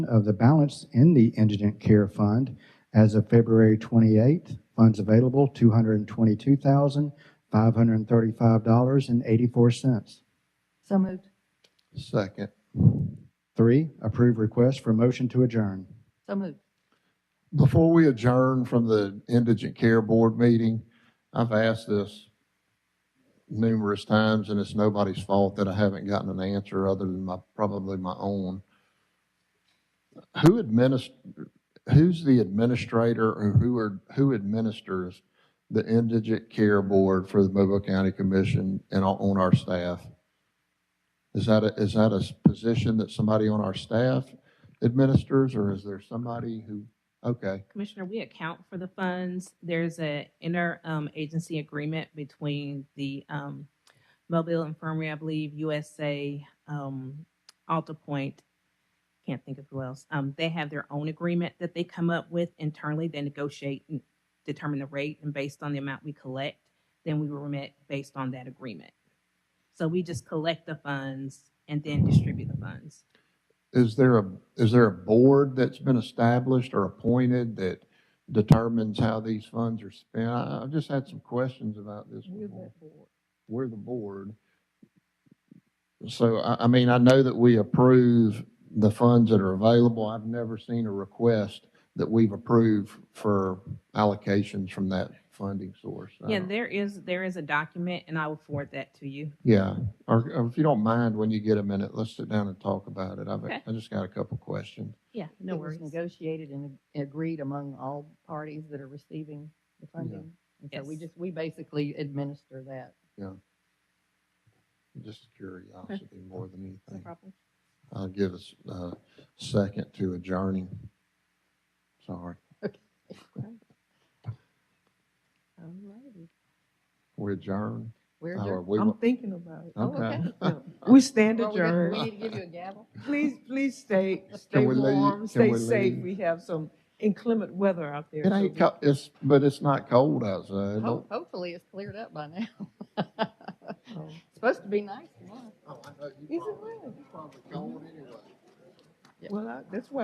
of the balance in the Indigent Care Fund as of February 28th. Funds available, $222,535.84. So moved. Second. Three, approve request for motion to adjourn. So moved. Before we adjourn from the Indigent Care Board meeting, I've asked this numerous times, and it's nobody's fault that I haven't gotten an answer other than my, probably my own. Who administ, who's the administrator or who are, who administers the Indigent Care Board for the Mobile County Commission and on- on our staff? Is that a is that a s- position that somebody on our staff administers, or is there somebody who, okay? Commissioner, we account for the funds. There's an inter-agency agreement between the um, Mobile Infirmary, I believe, USA, um, Alta Point, can't think of who else. Um, They have their own agreement that they come up with internally. They negotiate and determine the rate, and based on the amount we collect, then we remit based on that agreement. So we just collect the funds and then distribute the funds. Is there a, is there a board that's been established or appointed that determines how these funds are spent? I, I've just had some questions about this. before. We're the board. So I, I mean, I know that we approve the funds that are available. I've never seen a request that we've approved for allocations from that funding source. I Yeah, don't- there is, there is a document, and I will forward that to you. Yeah, or, or if you don't mind, when you get a minute, let's sit down and talk about it. I've, Okay. I just got a couple questions. Yeah, no worries. It was negotiated and agreed among all parties that are receiving the funding. And so we Yes. just, we basically administer that. Just curiosity more than No anything. problem. I'll give us a second to adjourning. Sorry, Alrighty. we adjourn. We're Or adjourned. we I'm will- thinking about it. Oh, Oh, Okay. No. We stand Well, we got- We adjourned. need to give you a gavel? Please, please stay, stay we leave? Can warm, stay we safe. leave? We have some inclement weather out there. It so ain't, we- co- it's, but it's not cold outside. Ho- Don't- Hopefully it's cleared up by now. Oh. Supposed to be Oh, nice tomorrow. Is it really? Probably cold anyway. Well, I- that's why